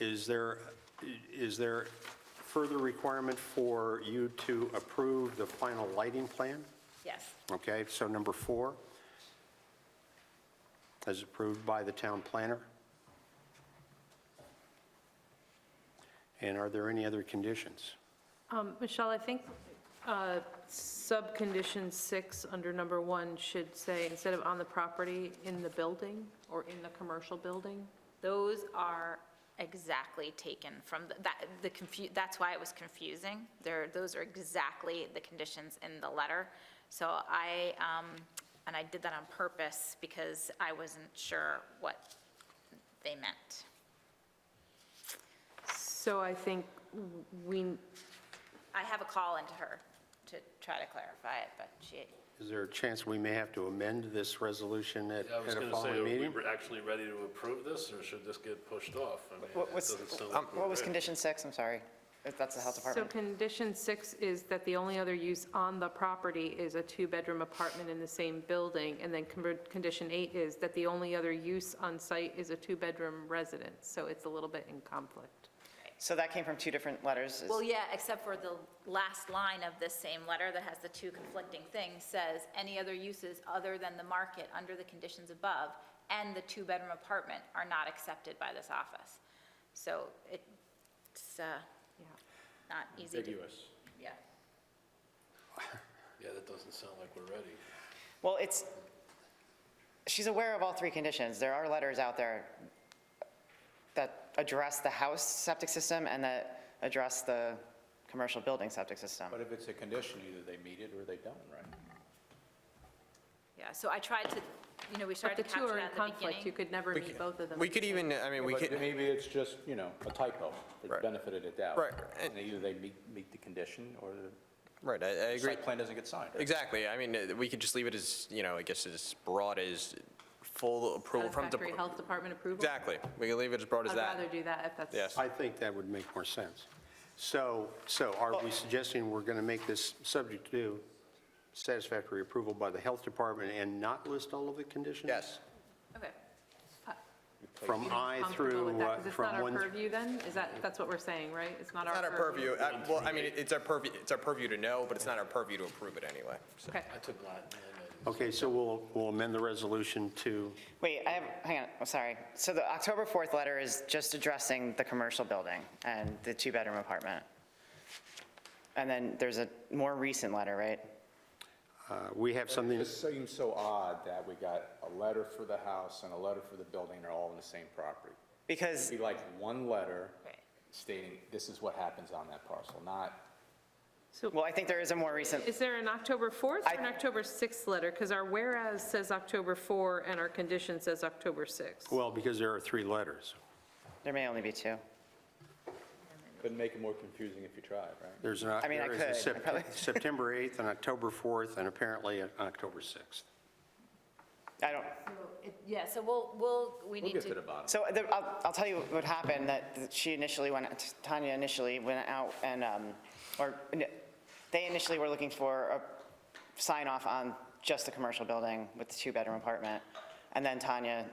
Is there, is there further requirement for you to approve the final lighting plan? Yes, Okay, so number four, as approved by the town planner. And are there any other conditions? Um, Michelle, I think uh, subcondition six under number one should say, instead of on the property, in the building or in the commercial building. those are exactly taken from, the- that, the confu, that's why it was confusing. There, those are exactly the conditions in the letter. So I, um, and I did that on purpose because I wasn't sure what they meant. So I think w- we, I have a call into her to try to clarify it, but she, Is there a chance we may have to amend this resolution at I was at a going to say, are following we meeting? re- actually ready to approve this, or should this get pushed off? I mean, What it was, doesn't sound um, like what we're was ready. condition six? I'm sorry. If That's the health so department. condition six is that the only other use on the property is a two-bedroom apartment in the same building, and then conver- condition eight is that the only other use on site is a two-bedroom residence, so it's a little bit in conflict. So that came from two different letters. Is- Well, yeah, except for the last line of this same letter that has the two conflicting things, says, "Any other uses other than the market under the conditions above and the two-bedroom apartment are not accepted by this office." So it's uh, Yeah. not easy to... Ambiguous. Yeah. Yeah, that doesn't sound like we're ready. Well, it's, she's aware of all three conditions. There are letters out there that address the house septic system and that address the commercial building septic system. But if it's a condition, either they meet it or they don't, right? Yeah, so I tried to, you know, we But started the to two capture are that in at the conflict, you beginning. could never meet both of them. We could even, I mean, we But could, maybe it's just, you know, a typo, it's Right. benefited a doubt. Right, and- And either they meet, meet the condition or right, I I the agree. site plan doesn't get signed. Exactly, I mean, uh, we could just leave it as, you know, I guess as broad as full approval from. the Satisfactory health department approval? Exactly, we can leave it as broad as I'd rather that. do that if that's. Yes. I think that would make more sense. So, so are we suggesting we're going to make this subject to satisfactory approval by the health department and not list all of the conditions? Yes, Okay. From I Comfortable with through, that, uh, 'cause it's not from our one, purview then? Is that, that's what we're saying, right? It's not our not purview? our purview, uh, well, I mean, it's our purview, it's our purview to know, but it's not our purview to approve it anyway. so. Okay. I took Latin. and okay, so we'll, we'll amend the resolution to, Wait, I have, hang on, I'm sorry. So the October 4th letter is just addressing the commercial building and the two-bedroom apartment. And then there's a more recent letter, right? uh, we have It something, just seems so odd that we got a letter for the house and a letter for the building, they're all on the same property. Because, It'd be like one letter Right. stating, this is what happens on that parcel, not, well, I think there is a more recent, Is there an October 4th or an I- October 6th letter? Because our whereas says October 4 and our condition says October 6. well, because there are three letters. there may only be two. couldn't make it more confusing if you tried, right? There's an, mean, I there is a could, I Sep- probably- September 8th and October 4th, and apparently uh, October 6th. I don't, Yeah, so we'll, we'll, we We'll need get to the to, bottom. So the- I'll, I'll tell you what happened, that she initially went, Tanya initially went out and, um, or n- they initially were looking for a sign off on just the commercial building with the two-bedroom apartment. And then Tanya,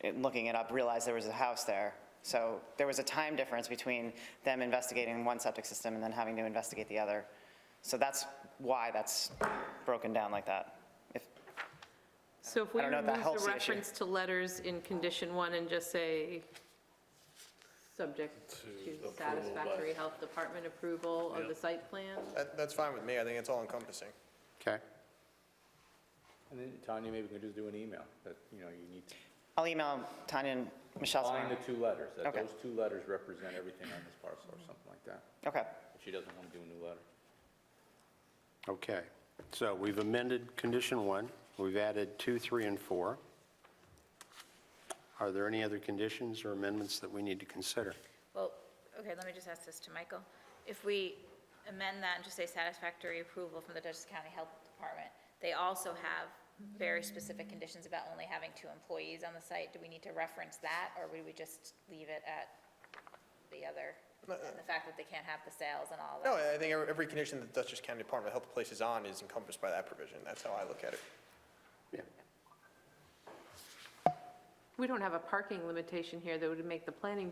in looking it up, realized there was a house there. So there was a time difference between them investigating one septic system and then having to investigate the other. So that's why that's broken down like that. If- So if we I don't know if remove that helps the the issue. reference to letters in condition one and just say, subject approval to by- satisfactory health department approval of the Yeah. site plan? That, that's fine with me, I think it's all encompassing. Okay? And then Tanya, maybe we can just do an email that, you know, you need to I'll email Tanya and Michelle Find the tomorrow. two letters, that Okay. those two letters represent everything on this parcel or something like that. Okay. If she doesn't want to do a new letter. Okay, so we've amended condition one, we've added two, three, and four. Are there any other conditions or amendments that we need to consider? well, okay, let me just ask this to Michael. If we amend that and just say satisfactory approval from the Dutchess County Health Department, they also have very specific conditions about only having two employees on the site. Do we need to reference that, or would we just leave it at the other, and the fact that they can't have the sales and all No, that? I think every every condition that Dutchess County Department of Health places on is encompassed by that provision, that's how I look at it. Yeah. We don't have a parking limitation here that would make the planning